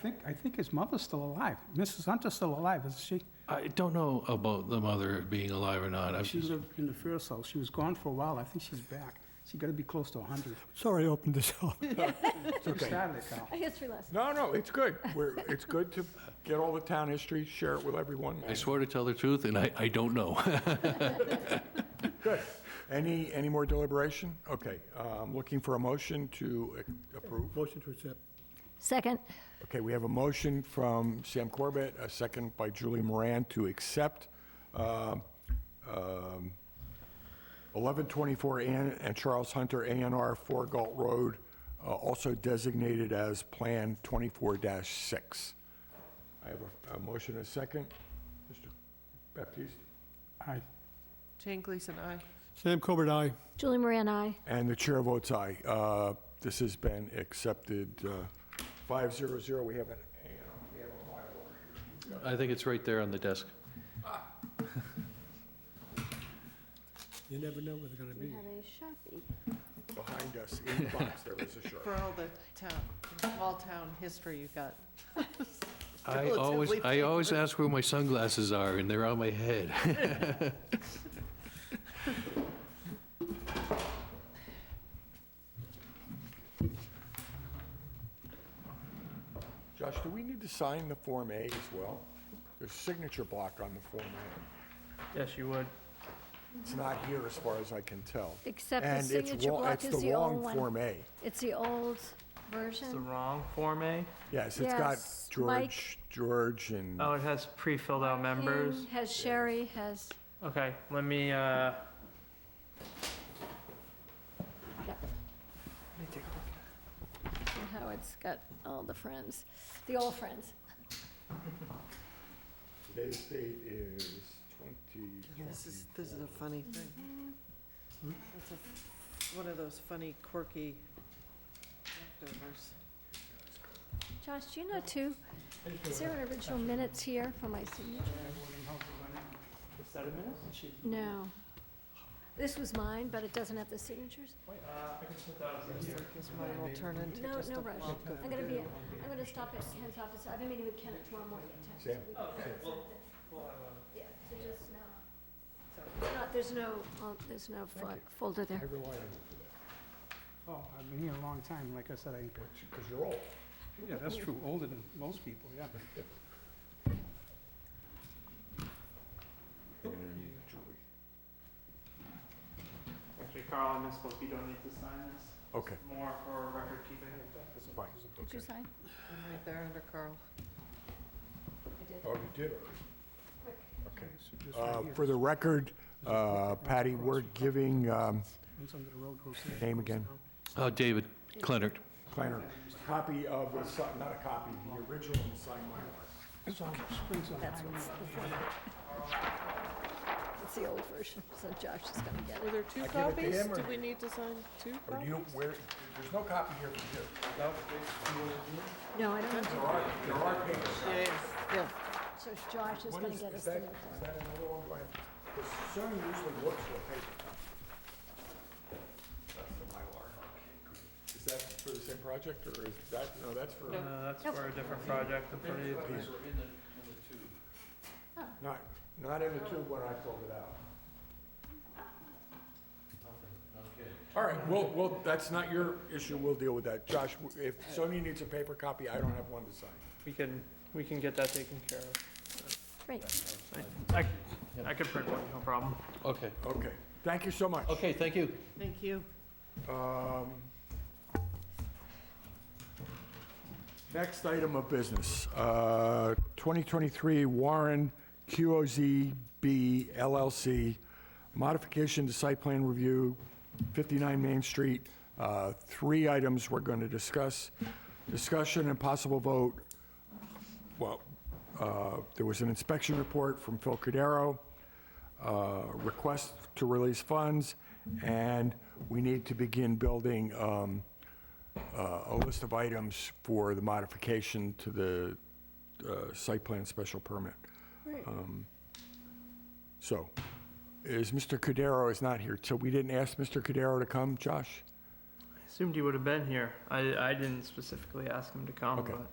think, I think his mother's still alive. Mrs. Hunter's still alive, isn't she? I don't know about the mother being alive or not. I've She just- lived in the first house. She was gone for a while. I think she's back. She gotta be close to a hundred. Sorry I opened this up. She started it, Carl. A history lesson. No, no, it's good. We're, it's good to get all the town history, share it with everyone. I swore to tell the truth, and I, I don't know. Good. Any, any more deliberation? Okay, um, looking for a motion to uh, approve. Motion to accept. Second, Okay, we have a motion from Sam Corbett, a second by Julie Moran to accept um, um, 1124 Ann and Charles Hunter ANR 4 Galt Road, uh, also designated as Plan 24-6. I have a- a motion and a second. Mr. Baptiste? I, Jane Gleason, aye. Sam Corbett, aye. Julie Moran, aye. And the chair votes aye. Uh, This has been accepted uh, 500. We have an A&R. I think it's right there on the desk. You never know where they're gonna We be. have a Sharpie. behind us in the box. There is a shirt. For all the town, all town history you got. I always, I always ask where my sunglasses are, and they're on my head. Josh, do we need to sign the Form A as well? There's signature block on the Form A. Yes, you would. It's not here as far as I can tell. Except the And it's signature wa- block is the old It's the wrong Form one. A. It's the old It's the version. wrong Form eh? A. Yes, it's got Yes, Mike. George, George and, Oh, it has pre-filled out members. Ian Has Sherry, has, Okay, let me, uh, and Howard's got all the friends, the old friends. today's date is 20. This is, this is a funny thing. Mm-hmm. It's a, one of those funny quirky leftovers. Josh, do you know too, is there an original minutes here for my signature? is that a minute? No. This was mine, but it doesn't have the signatures. Because mine will turn into No, just a no rush. block of I'm gonna be, I'm gonna stop at Ken's office. I've been meeting with Ken at tomorrow morning at ten. Sam? Yeah, so just now. There's not- There's no, um, there's no fo- folder I there. rely on you oh, I've been here a long time. Like I said, I, because you're old. yeah, that's true. Older than most people, yeah. And Julie. Actually, Carl, I misspoke. You don't need to sign this. Okay, More for record keeping. fine. Did you sign? I'm Right there under Carl. I did. Oh, you did it. Okay. so just right Uh, here. For the record, uh, Patty, we're giving, um, One's under the road, goes there, Name goes again. down. Oh, David Clennard. Planner, copy of, the si- not a copy, the original and signed Mylar. So, Springs on That's Highway. what's the folder. It's the old version, so Josh is gonna get Were it. there I two give it to copies? him, or- Do we need to sign two Or do copies? you, where, there's no copy here for you. No, I don't want to. There are, there are papers. Yeah, yeah, yeah. So Josh is What gonna is- get is us that- the. Is that another one? Do I have- Because Sony usually works with paper. That's the Mylar. Is that for the same project, or is that, no, that's for, Uh, that's for a different project. I'm pretty, not, not in the tube when I pulled it out. All right, well, well, that's not your issue, we'll deal with that. Josh, if Sony needs a paper copy, I don't have one to sign. we can, we can get that taken care of. Great. I, I could print one, no problem. Okay. Okay, thank you so much. Okay, thank you. Thank you. Um, Next item of business, uh, 2023 Warren QOZB LLC, modification to site plan review, 59 Main Street. Uh, Three items we're going to discuss. Discussion and possible vote well, uh, there was an inspection report from Phil Cudero, uh, request to release funds, and we need to begin building um, uh, a list of items for the modification to the uh, site plan special permit. Um, So, is Mr. Cudero is not here, so we didn't ask Mr. Cudero to come, Josh? Assumed he would have been here. I, I didn't specifically ask him to come, Okay. but.